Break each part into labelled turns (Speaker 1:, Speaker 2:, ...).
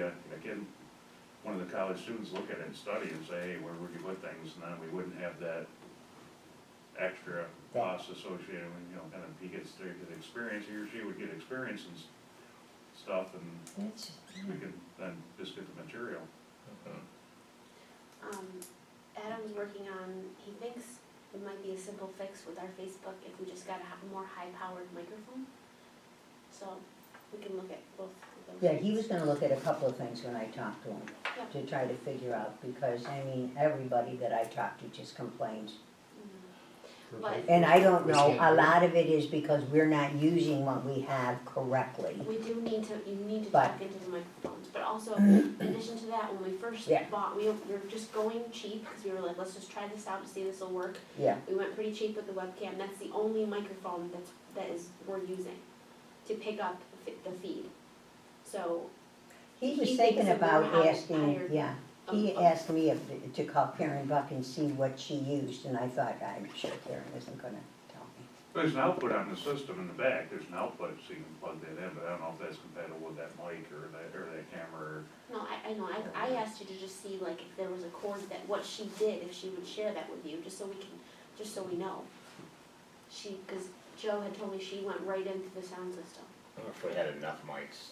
Speaker 1: Yeah, again, one of the college students look at it and study and say, hey, where would you put things, and then we wouldn't have that extra cost associated with, you know, kind of, he gets there, get experience, he or she would get experience and s- stuff, and
Speaker 2: That's,
Speaker 1: we can then just get the material.
Speaker 3: Um, Adam's working on, he thinks it might be a simple fix with our Facebook if we just got a h- more high-powered microphone. So we can look at both of those.
Speaker 2: yeah, he was gonna look at a couple of things when I talked to him,
Speaker 3: Yeah.
Speaker 2: to try to figure out, because, I mean, everybody that I talked to just complains.
Speaker 3: Mm. But
Speaker 2: And I don't know, a lot of it is because we're not using what we have correctly.
Speaker 3: we do need to, you need to
Speaker 2: But-
Speaker 3: talk into the microphones, but also, in addition to that, when we first
Speaker 2: Yeah.
Speaker 3: bought, we, we were just going cheap, cause we were like, let's just try this out and see this will work.
Speaker 2: Yeah,
Speaker 3: We went pretty cheap with the webcam, that's the only microphone that's, that is, we're using to pick up the f- the feed. So
Speaker 2: he was
Speaker 3: He
Speaker 2: thinking
Speaker 3: thinks that we're
Speaker 2: about
Speaker 3: hired-
Speaker 2: asking,
Speaker 3: hired-
Speaker 2: yeah, he
Speaker 3: Um, um,
Speaker 2: asked me if, to call Karen Buck and see what she used, and I thought, "Ah, I'm sure Karen isn't gonna tell me.
Speaker 1: There's an output on the system in the back, there's an output, so you can plug that in, but I don't know if that's compatible with that mic or that, or that camera, or
Speaker 3: No, I, I know, I, I asked you to just see like if there was a cord that, what she did, if she would share that with you, just so we can, just so we know. She, cause Joe had told me she went right into the sound system.
Speaker 4: I don't know if we had enough mics.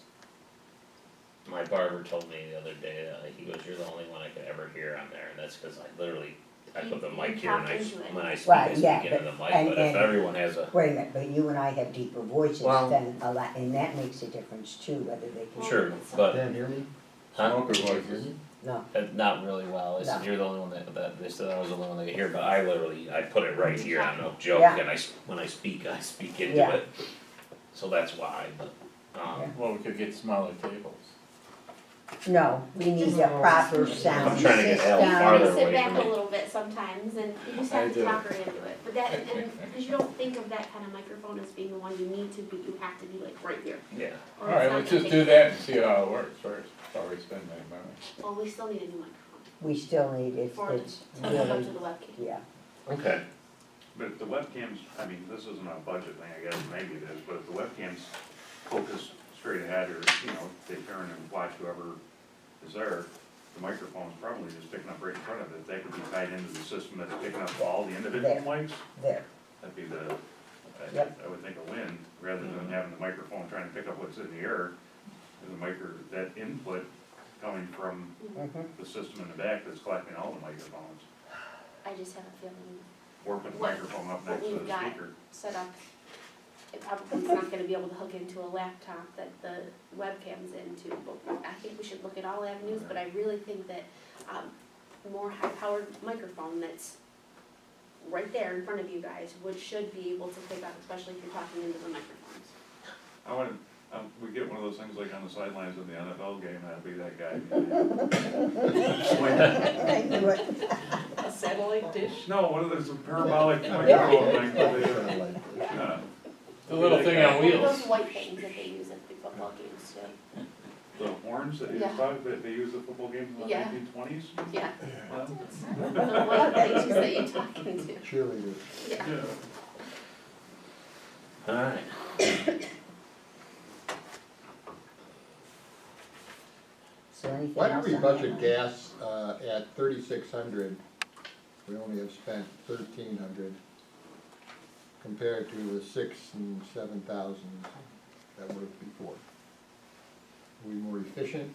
Speaker 4: My barber told me the other day, uh, he goes, you're the only one I could ever hear on there, and that's cause I literally, I
Speaker 3: You-
Speaker 4: put the
Speaker 3: you
Speaker 4: mic here and
Speaker 3: talk
Speaker 4: I, s-
Speaker 3: into it.
Speaker 4: when I speak,
Speaker 2: Right,
Speaker 4: I
Speaker 2: yeah,
Speaker 4: speak into the
Speaker 2: but-
Speaker 4: mic,
Speaker 2: and-
Speaker 4: but if
Speaker 2: and-
Speaker 4: everyone has a,
Speaker 2: Wait a minute, but you and I have deeper voices
Speaker 4: Well-
Speaker 2: than a lot, and that makes a difference too, whether they can.
Speaker 4: sure, but,
Speaker 5: Dan, hear me?
Speaker 4: huh?
Speaker 5: Smoker voices.
Speaker 2: No,
Speaker 4: Uh, Not really well, I said,
Speaker 2: No.
Speaker 4: you're the only one that, that, they said I was the only one that could hear, but I literally, I put it right here, I'm no joke,
Speaker 2: Yeah.
Speaker 4: and I, s- when I speak, I speak into it.
Speaker 2: Yeah.
Speaker 4: So that's why, but, um,
Speaker 5: Well, we could get smaller tables.
Speaker 2: no, we need a proper sound
Speaker 4: I'm
Speaker 2: system.
Speaker 4: trying to get Al farther
Speaker 3: You sit
Speaker 4: away
Speaker 3: back
Speaker 4: from
Speaker 3: a
Speaker 4: me.
Speaker 3: little bit sometimes and you just
Speaker 5: I
Speaker 3: have to
Speaker 5: do.
Speaker 3: talk her into it, but that, and, cause you don't think of that kind of microphone as being the one you need to, but you have to be like right here.
Speaker 4: yeah,
Speaker 3: or it's
Speaker 5: Alright,
Speaker 3: not
Speaker 5: let's
Speaker 3: gonna
Speaker 5: just
Speaker 3: pick
Speaker 5: do
Speaker 3: it up.
Speaker 5: that and see how it works first, before we spend that money.
Speaker 3: Well, we still need a new microphone
Speaker 2: We still need, it's,
Speaker 3: for it
Speaker 2: it's
Speaker 3: to hook up
Speaker 2: really,
Speaker 3: to the webcam.
Speaker 2: yeah,
Speaker 4: okay,
Speaker 1: But if the webcams, I mean, this isn't a budget thing, I guess, maybe it is, but if the webcams focus straight ahead or, you know, they turn and watch whoever is there, the microphone's probably just picking up right in front of it, that could be tied into the system that's picking up all the individual
Speaker 2: There.
Speaker 1: mics.
Speaker 2: there,
Speaker 1: That'd be the,
Speaker 2: Yep.
Speaker 1: I, I would think a win, rather than having the microphone trying to pick up what's in the air. And the micro, that input coming from
Speaker 2: mhm.
Speaker 1: the system in the back that's collecting all the microphones,
Speaker 3: I just have a feeling
Speaker 1: or put the
Speaker 3: What-
Speaker 1: microphone up
Speaker 3: what
Speaker 1: next to
Speaker 3: we've
Speaker 1: the
Speaker 3: got.
Speaker 1: speaker.
Speaker 3: set up, it probably is not gonna be able to hook into a laptop that the webcam's into, but I think we should look at all avenues, but I really think that, um, more high-powered microphone that's right there in front of you guys would, should be able to pick up, especially if you're talking into the microphones.
Speaker 1: I wanna, um, we get one of those things like on the sidelines of the NFL game, I'd be that guy. Swing.
Speaker 2: I knew it.
Speaker 3: A satellite dish?
Speaker 1: No, one of those parabolic microphone things. that they- Uh, Yeah.
Speaker 5: The little thing on
Speaker 3: One of those
Speaker 5: wheels.
Speaker 3: white things that they use at the football games too.
Speaker 1: The horns that you
Speaker 3: Yeah.
Speaker 1: thought that they used at football games in the
Speaker 3: Yeah.
Speaker 1: nineteen twenties?
Speaker 3: Yeah, the white things that you talk into,
Speaker 6: cheerleader.
Speaker 3: yeah.
Speaker 4: alright.
Speaker 2: So anything
Speaker 6: Why
Speaker 2: else
Speaker 6: did we
Speaker 2: on that
Speaker 6: budget
Speaker 2: one?
Speaker 6: gas, uh, at thirty-six hundred? We only have spent thirteen hundred compared to the six and seven thousand that were before. Are we more efficient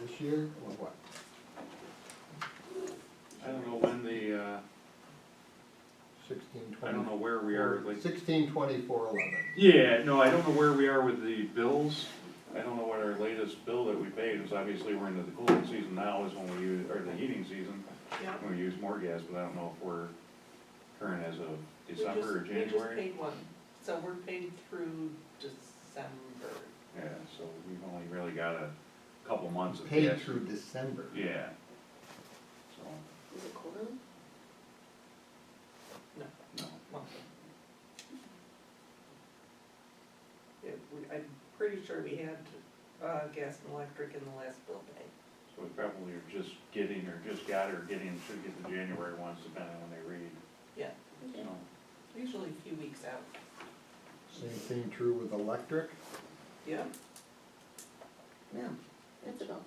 Speaker 6: this year or what?
Speaker 1: I don't know when the, uh,
Speaker 6: Sixteen
Speaker 1: I
Speaker 6: twenty?
Speaker 1: don't know where we are, like,
Speaker 6: Sixteen twenty-four eleven.
Speaker 1: yeah, no, I don't know where we are with the bills. I don't know what our latest bill that we paid is, obviously, we're into the cooling season now is when we use, or the heating season.
Speaker 7: Yeah.
Speaker 1: When we use more gas, but I don't know if we're current as of
Speaker 7: We just-
Speaker 1: December or January.
Speaker 7: We just paid one, so we're paid through December.
Speaker 1: Yeah, so we've only really got a couple months of
Speaker 6: Paid
Speaker 1: gas.
Speaker 6: through December.
Speaker 1: Yeah. So,
Speaker 3: Is it quarterly?
Speaker 1: no,
Speaker 7: monthly. It- we- I'm pretty sure we had, uh, gas and electric in the last bill pay.
Speaker 1: so we probably are just getting, or just got, or getting, should get the January ones, depending on when they read, you know.
Speaker 7: usually a few weeks out.
Speaker 6: Same thing true with electric.
Speaker 7: Yeah,
Speaker 2: Yeah,
Speaker 3: That's about